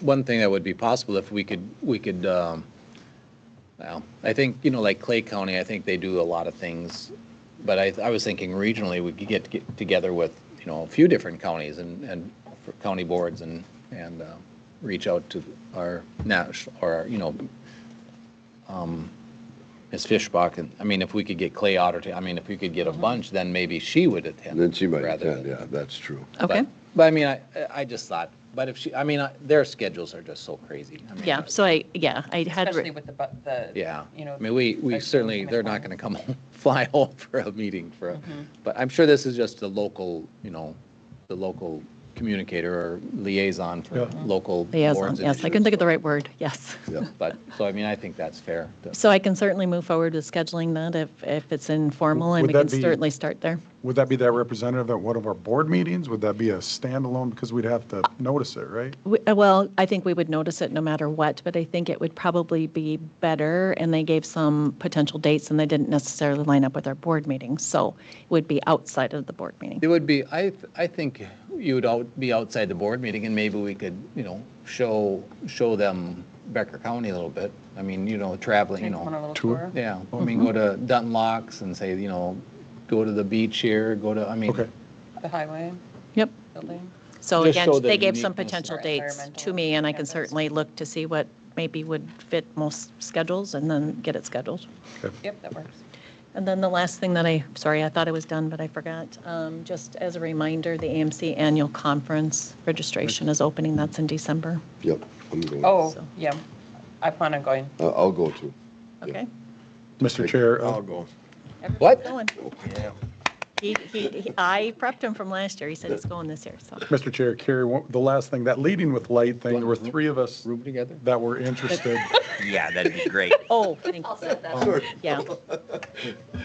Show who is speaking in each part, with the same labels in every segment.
Speaker 1: one thing that would be possible if we could, we could, um, well, I think, you know, like Clay County, I think they do a lot of things. But I, I was thinking regionally, we could get, get together with, you know, a few different counties and, and for county boards and, and, uh, reach out to our national, or, you know, um, Ms. Fishbach, and, I mean, if we could get Clay Otter to, I mean, if we could get a bunch, then maybe she would attend.
Speaker 2: Mm-hmm. Then she might
Speaker 1: rather
Speaker 2: attend,
Speaker 1: than-
Speaker 2: yeah, that's true.
Speaker 3: Okay,
Speaker 1: But- But I mean, I, I just thought, but if she, I mean, I- their schedules are just so crazy. I mean,
Speaker 3: yeah, so I, yeah, I had,
Speaker 4: Especially
Speaker 3: re-
Speaker 4: with the, bu- the.
Speaker 1: Yeah.
Speaker 4: You know.
Speaker 1: I mean, we, we
Speaker 4: like,
Speaker 1: certainly,
Speaker 4: coming
Speaker 1: they're not going to
Speaker 4: home.
Speaker 1: come home, fly home for a meeting for, a
Speaker 3: Mm-hmm.
Speaker 1: but I'm sure this is just the local, you know, the local communicator or liaison for local
Speaker 3: liaison,
Speaker 1: boards. and
Speaker 3: yes, I couldn't think of
Speaker 1: issues,
Speaker 3: the right word, yes.
Speaker 2: Yeah.
Speaker 1: But, so I mean, I think that's fair. to-
Speaker 3: So I can certainly move forward with scheduling that if, if it's informal and
Speaker 5: Would
Speaker 3: we
Speaker 5: that
Speaker 3: can
Speaker 5: be-
Speaker 3: certainly start there.
Speaker 5: Would that be that representative at one of our board meetings? Would that be a standalone? Because we'd have to notice it, right?
Speaker 3: We- uh, Well, I think we would notice it no matter what, but I think it would probably be better, and they gave some potential dates, and they didn't necessarily line up with our board meeting, so it would be outside of the board meeting.
Speaker 1: It would be, I, th- I think you would out, be outside the board meeting and maybe we could, you know, show, show them Becker County a little bit. I mean, you know, traveling, you
Speaker 4: Take
Speaker 1: know.
Speaker 4: one a little
Speaker 5: Tour?
Speaker 4: tour.
Speaker 1: Yeah, I
Speaker 5: Mm-hmm.
Speaker 1: mean, go to Dunlocks and say, you know, go to the beach here, go to, I mean,
Speaker 5: Okay.
Speaker 4: The highway
Speaker 3: Yep.
Speaker 4: building.
Speaker 3: So
Speaker 1: Just
Speaker 3: again,
Speaker 1: show the
Speaker 3: they gave some
Speaker 1: uniqueness.
Speaker 3: potential
Speaker 4: Or
Speaker 3: dates to
Speaker 4: environmental
Speaker 3: me, and I can
Speaker 4: campus.
Speaker 3: certainly look to see what maybe would fit most schedules and then get it scheduled.
Speaker 4: Yep, that works.
Speaker 3: And then the last thing that I, sorry, I thought I was done, but I forgot. Um, Just as a reminder, the AMC Annual Conference registration is opening. That's in December.
Speaker 2: Yep, I'm going.
Speaker 4: Oh,
Speaker 3: So-
Speaker 4: yeah. I plan on going.
Speaker 2: I- I'll go too.
Speaker 3: Okay?
Speaker 5: Mr. Chair, uh,
Speaker 2: I'll go.
Speaker 1: what?
Speaker 3: Going. He, he, he- I prepped him from last year. He said he's going this year, so.
Speaker 5: Mr. Chair, Carrie, one- the last thing, that leading with light thing, there were three of us
Speaker 1: Room together?
Speaker 5: that were interested.
Speaker 6: Yeah, that'd be great.
Speaker 3: Oh, thank you. Yeah,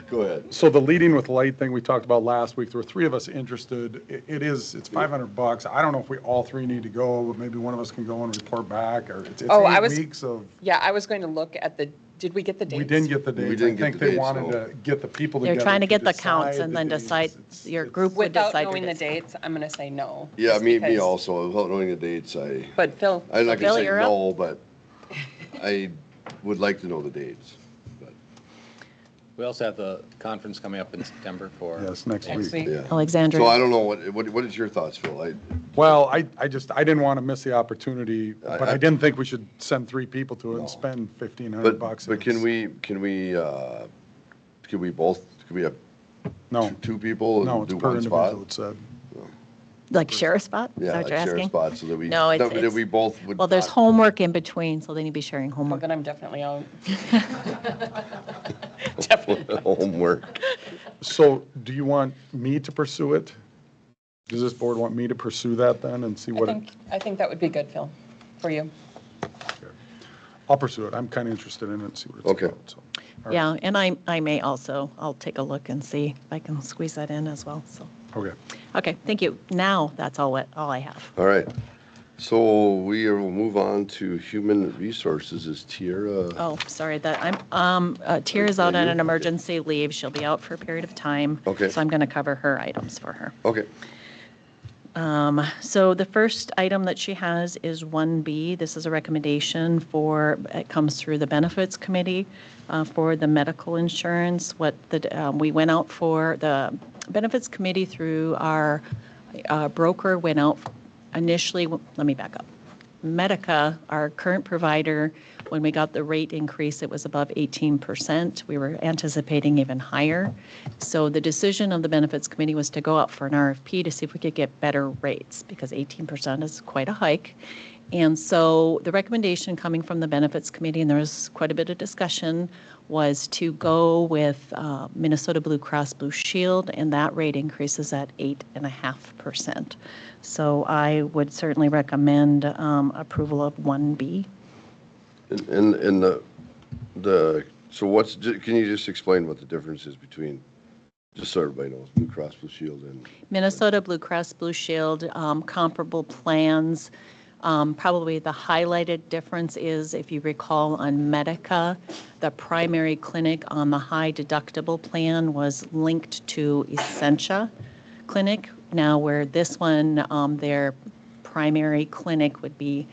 Speaker 2: Go ahead.
Speaker 5: So the leading with light thing we talked about last week, there were three of us interested. I- It is, it's 500 bucks. I don't know if we all three need to go, but maybe one of us can go and report back or it's it's
Speaker 4: Oh, I
Speaker 5: eight
Speaker 4: was-
Speaker 5: weeks of,
Speaker 4: Yeah, I was going to look at the, did we get the dates?
Speaker 5: we didn't get the
Speaker 2: We
Speaker 5: dates. I
Speaker 2: didn't get
Speaker 5: think
Speaker 2: the
Speaker 5: they
Speaker 2: dates,
Speaker 5: wanted
Speaker 2: no.
Speaker 5: to get the people together.
Speaker 3: they're trying to get the
Speaker 5: decide
Speaker 3: counts and then
Speaker 5: dates.
Speaker 3: decide,
Speaker 5: It's-
Speaker 3: your
Speaker 5: it's-
Speaker 3: group would
Speaker 4: Without
Speaker 3: decide your
Speaker 4: knowing the
Speaker 3: dates.
Speaker 4: dates, I'm going to say no.
Speaker 2: Yeah,
Speaker 4: just
Speaker 2: me, me
Speaker 4: because-
Speaker 2: also, without knowing the dates, I,
Speaker 4: But Phil,
Speaker 2: I'm not
Speaker 3: Bill,
Speaker 2: gonna say
Speaker 3: you're up.
Speaker 2: no, but I would like to know the dates. but
Speaker 1: We also have the conference coming up in September for.
Speaker 5: Yes, next
Speaker 4: next week.
Speaker 5: week.
Speaker 2: Yeah.
Speaker 3: Alexandria.
Speaker 2: So I don't know, what, what what is your thoughts, Phil? I,
Speaker 5: Well, I, I just, I didn't want to miss the opportunity, but
Speaker 2: I-
Speaker 5: I didn't think we should send three people to it
Speaker 2: No.
Speaker 5: and spend 1,500
Speaker 2: but,
Speaker 5: bucks.
Speaker 2: but can we, can we, uh, can we both, can we have
Speaker 5: No,
Speaker 2: two- two people
Speaker 5: no,
Speaker 2: and
Speaker 5: it's
Speaker 2: do
Speaker 5: per
Speaker 2: one spot?
Speaker 5: individual, it said.
Speaker 3: Like share a spot? Is
Speaker 2: Yeah,
Speaker 3: that what
Speaker 2: like
Speaker 3: you're
Speaker 2: share a
Speaker 3: asking?
Speaker 2: spot so that we.
Speaker 3: No, it's-
Speaker 2: but That
Speaker 3: it's-
Speaker 2: we both would.
Speaker 3: Well, there's
Speaker 2: not-
Speaker 3: homework in between, so they need to be sharing
Speaker 4: Well,
Speaker 3: homework.
Speaker 4: then I'm definitely out. Definitely.
Speaker 2: Homework.
Speaker 5: So do you want me to pursue it? Does this board want me to pursue that then and see
Speaker 4: I
Speaker 5: what? it-
Speaker 4: think, I think that would be good, Phil, for you.
Speaker 5: I'll pursue it. I'm kind of interested in it and see what it's
Speaker 2: Okay.
Speaker 5: about. so. All right.
Speaker 3: Yeah, and I, I may also, I'll take a look and see if I can squeeze that in as well, so.
Speaker 5: Okay.
Speaker 3: Okay, thank you. Now, that's all, what all I have.
Speaker 2: All right. So we will move on to human resources. Is Tiara?
Speaker 3: Oh, sorry, that, I'm, um, uh, Tia's out on
Speaker 2: you?
Speaker 3: an
Speaker 2: Okay.
Speaker 3: emergency leave. She'll be out for a period of time.
Speaker 2: Okay.
Speaker 3: So I'm going to cover her items for her.
Speaker 2: Okay.
Speaker 3: So the first item that she has is 1B. This is a recommendation for, it comes through the Benefits Committee uh, for the medical insurance, what the, um, we went out for, the Benefits Committee through our uh, broker went out initially, let me back up. Medica, our current provider, when we got the rate increase, it was above 18%. We were anticipating even higher. So the decision of the benefits committee was to go out for an RFP to see if we could get better rates because 18% is quite a hike. And so the recommendation coming from the benefits committee, and there was quite a bit of discussion, was to go with uh, Minnesota Blue Cross Blue Shield, and that rate increases at 8.5%. So I would certainly recommend um, approval of 1B.
Speaker 2: And, and, and the, the, so what's, ju- can you just explain what the difference is between, just so everybody knows, Blue Cross Blue Shield and,
Speaker 3: Minnesota Blue Cross Blue Shield, um, comparable plans. Um, Probably the highlighted difference is, if you recall, on Medica, the primary clinic on the high deductible plan was linked to Essentia Clinic. Now, where this one, um, their primary clinic would be